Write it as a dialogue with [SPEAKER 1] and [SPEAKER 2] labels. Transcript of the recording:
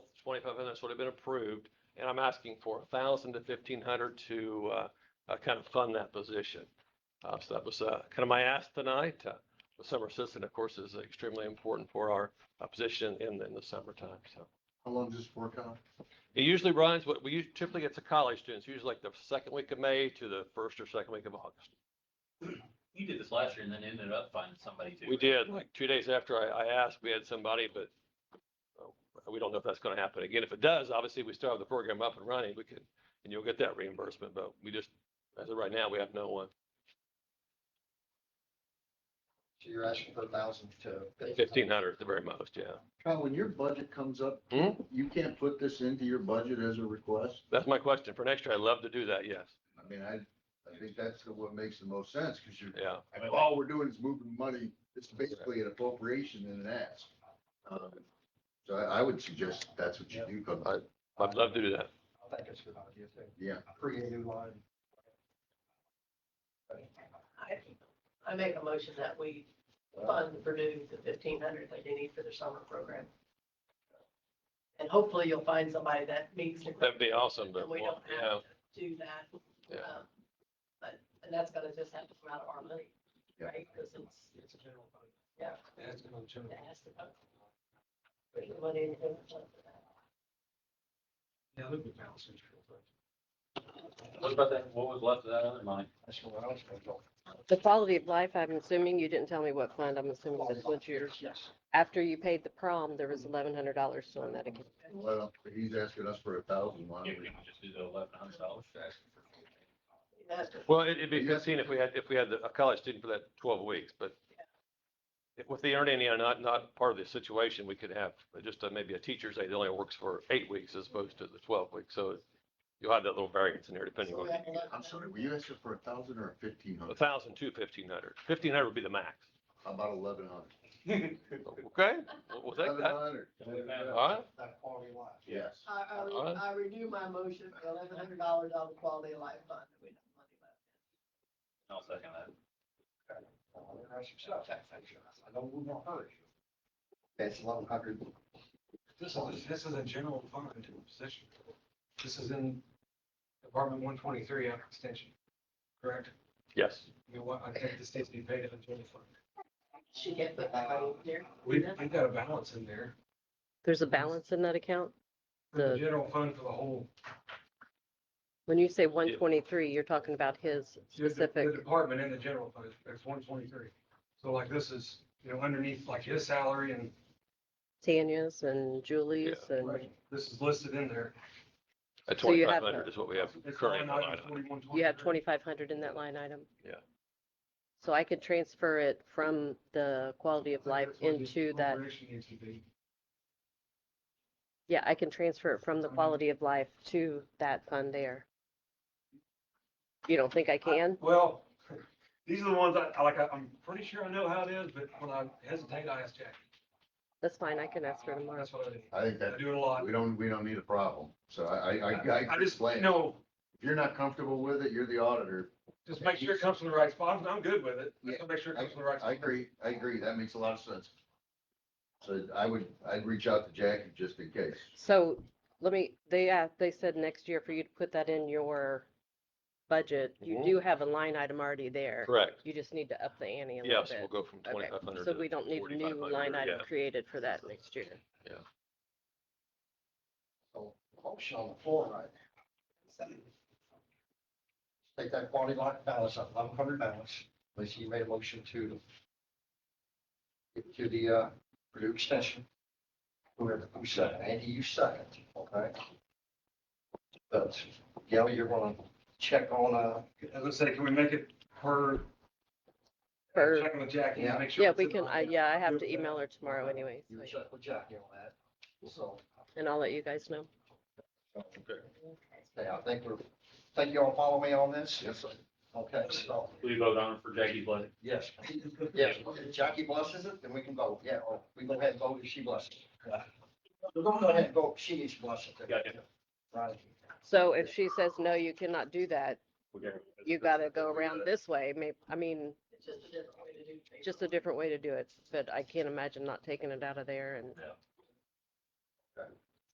[SPEAKER 1] twenty-five hundred that's already been approved, and I'm asking for a thousand to fifteen hundred to, uh, uh, kind of fund that position. Uh, so that was, uh, kind of my ask tonight. Uh, The summer assistant, of course, is extremely important for our, uh, position in, in the summertime, so.
[SPEAKER 2] How long does this work out?
[SPEAKER 1] It usually runs, what we usually, typically it's a college students, usually like the second week of May to the first or second week of August.
[SPEAKER 3] You did this last year and then ended up finding somebody too.
[SPEAKER 1] We did, like, two days after I, I asked, we had somebody, but oh, we don't know if that's gonna happen again. If it does, obviously, we still have the program up and running, we could, and you'll get that reimbursement, but we just, as of right now, we have no one.
[SPEAKER 4] So you're asking for a thousand to.
[SPEAKER 1] Fifteen hundred at the very most, yeah.
[SPEAKER 2] Kyle, when your budget comes up,
[SPEAKER 1] Hmm?
[SPEAKER 2] you can't put this into your budget as a request?
[SPEAKER 1] That's my question. For next year, I'd love to do that, yes,
[SPEAKER 2] I mean, I, I think that's the- what makes the most sense, because you're,
[SPEAKER 1] yeah.
[SPEAKER 2] I mean, all we're doing is moving money. It's basically an appropriation and an ask.
[SPEAKER 1] Uh,
[SPEAKER 2] Um, So I, I would suggest that's what you do, because I,
[SPEAKER 1] I'd love to do that.
[SPEAKER 4] I think it's a good idea too.
[SPEAKER 2] yeah.
[SPEAKER 4] Create a new line.
[SPEAKER 5] I, I make a motion that we fund Purdue the fifteen hundred that they need for their summer program. And hopefully you'll find somebody that meets. the
[SPEAKER 1] That'd be awesome, but,
[SPEAKER 5] And we don't
[SPEAKER 1] yeah,
[SPEAKER 5] have to do that.
[SPEAKER 1] Yeah.
[SPEAKER 5] um, But, and that's gonna just have to come out of our money,
[SPEAKER 2] Yeah.
[SPEAKER 5] right? Cause it's,
[SPEAKER 4] Uh, It's a general fund.
[SPEAKER 5] Yeah.
[SPEAKER 4] That's another general.
[SPEAKER 5] it has to come. Put your money in the general fund for that.
[SPEAKER 4] Yeah, look at balance sheet real quick.
[SPEAKER 3] What about that, what was left of that other money?
[SPEAKER 4] That's what I was gonna go.
[SPEAKER 6] The quality of life, I'm assuming, you didn't tell me what fund, I'm assuming this was yours.
[SPEAKER 4] Yes.
[SPEAKER 6] After you paid the prom, there was eleven hundred dollars still in that account.
[SPEAKER 2] Well, he's asking us for a thousand, why
[SPEAKER 3] You
[SPEAKER 2] don't we?
[SPEAKER 3] can just do the eleven hundred dollars.
[SPEAKER 5] That's
[SPEAKER 1] well, it- it'd be
[SPEAKER 2] Yeah.
[SPEAKER 1] fifteen if we had, if we had the- a college student for that twelve weeks, but if- with the earning, you know, not, not part of the situation, we could have just uh, maybe a teacher's aide that only works for eight weeks as opposed to the twelve weeks, so you'll have that little variance in there depending
[SPEAKER 5] So
[SPEAKER 1] on.
[SPEAKER 5] we have eleven
[SPEAKER 2] I'm sorry, were you asking for a thousand or a fifteen
[SPEAKER 1] A
[SPEAKER 2] hundred?
[SPEAKER 1] thousand to fifteen hundred. Fifteen hundred would be the max.
[SPEAKER 2] How about eleven hundred?
[SPEAKER 1] Okay, we'll- we'll take that. All right,
[SPEAKER 4] That quality life.
[SPEAKER 2] Yes.
[SPEAKER 5] I, I re-
[SPEAKER 1] Alright.
[SPEAKER 5] I renew my motion for eleven hundred dollars on the quality of life fund. We have money left.
[SPEAKER 3] I'll second that.
[SPEAKER 4] I don't move on hurry. That's eleven hundred. This is, this is a general fund position. This is in Department one twenty-three under extension, correct?
[SPEAKER 1] yes.
[SPEAKER 4] You know what, I think the state's being paid a general fund.
[SPEAKER 5] She can't put that money in there.
[SPEAKER 4] We've, we've got a balance in there.
[SPEAKER 6] There's a balance in that account?
[SPEAKER 4] The
[SPEAKER 6] The-
[SPEAKER 4] general fund for the whole.
[SPEAKER 6] When you say one twenty-three, you're talking about his
[SPEAKER 4] the- the-
[SPEAKER 6] specific,
[SPEAKER 4] The department and the general fund, it's one twenty-three. So like this is, you know, underneath like his salary and
[SPEAKER 6] Tanya's and Julie's and
[SPEAKER 4] this is listed in there.
[SPEAKER 1] At
[SPEAKER 6] So you
[SPEAKER 1] twenty-five
[SPEAKER 6] have
[SPEAKER 1] hundred
[SPEAKER 6] the-
[SPEAKER 1] is what we have
[SPEAKER 4] It's
[SPEAKER 1] currently.
[SPEAKER 4] line
[SPEAKER 1] in the line
[SPEAKER 4] item
[SPEAKER 1] item.
[SPEAKER 4] 4123.
[SPEAKER 6] you have twenty-five hundred in that line item?
[SPEAKER 1] Yeah.
[SPEAKER 6] So I could transfer it from the quality of life
[SPEAKER 4] That's what the
[SPEAKER 6] into that,
[SPEAKER 4] appropriation needs to be.
[SPEAKER 6] yeah, I can transfer it from the quality of life to that fund there. You don't think I can?
[SPEAKER 4] Well, these are the ones I, I like, I- I'm pretty sure I know how it is, but when I hesitate, I ask Jackie.
[SPEAKER 6] That's fine, I can ask her tomorrow.
[SPEAKER 4] That's what I do.
[SPEAKER 2] I think that,
[SPEAKER 4] I do it a lot.
[SPEAKER 2] we don't, we don't need a problem, so I, I, I.
[SPEAKER 4] I just,
[SPEAKER 2] explain.
[SPEAKER 4] no,
[SPEAKER 2] If you're not comfortable with it, you're the auditor.
[SPEAKER 4] just make sure it comes from the right spot. I'm- I'm good with it. Just make sure it
[SPEAKER 2] I,
[SPEAKER 4] comes from the right.
[SPEAKER 2] I
[SPEAKER 4] spot.
[SPEAKER 2] agree, I agree, that makes a lot of sense. So I would, I'd reach out to Jackie just in case.
[SPEAKER 6] So let me, they, a- they said next year for you to put that in your budget. You
[SPEAKER 1] Mhm.
[SPEAKER 6] do have a line item already there.
[SPEAKER 1] Correct.
[SPEAKER 6] You just need to up the ante a little
[SPEAKER 1] Yes, we'll
[SPEAKER 6] bit.
[SPEAKER 1] go from
[SPEAKER 6] Okay,
[SPEAKER 1] twenty-five hundred.
[SPEAKER 6] so we don't need a new line item created for that next year.
[SPEAKER 4] Motion on the floor right now. Take that quality life balance, that eleven hundred balance, which you made a motion to to the uh, Purdue extension. Whoever, who second, Andy, you second, okay? But, yeah, you're gonna check on, uh. As I say, can we make it per?
[SPEAKER 6] For,
[SPEAKER 4] Check with Jackie, and make sure.
[SPEAKER 6] yeah,
[SPEAKER 4] it's
[SPEAKER 6] we
[SPEAKER 4] in
[SPEAKER 6] can, I,
[SPEAKER 4] line.
[SPEAKER 6] yeah, I have to
[SPEAKER 4] Yeah.
[SPEAKER 6] email her tomorrow anyway,
[SPEAKER 4] You
[SPEAKER 6] so-
[SPEAKER 4] check with Jackie on that, so.
[SPEAKER 6] and I'll let you guys know.
[SPEAKER 4] Okay, I think we're, think you all follow me on this?
[SPEAKER 2] Yes,
[SPEAKER 4] Okay, so,
[SPEAKER 3] We vote on it for Jackie's budget.
[SPEAKER 4] yes, yes, if Jackie blesses it, then we can vote, yeah, or we go ahead and vote if she blesses. it. We're gonna go ahead and vote, she needs to bless it.
[SPEAKER 3] Gotcha.
[SPEAKER 4] Right.
[SPEAKER 6] So if she says, no, you cannot do that, you gotta go around this way, may, I mean,
[SPEAKER 5] It's just a different way to do things.
[SPEAKER 6] just a different way to do it. But I can't imagine not taking it out of there and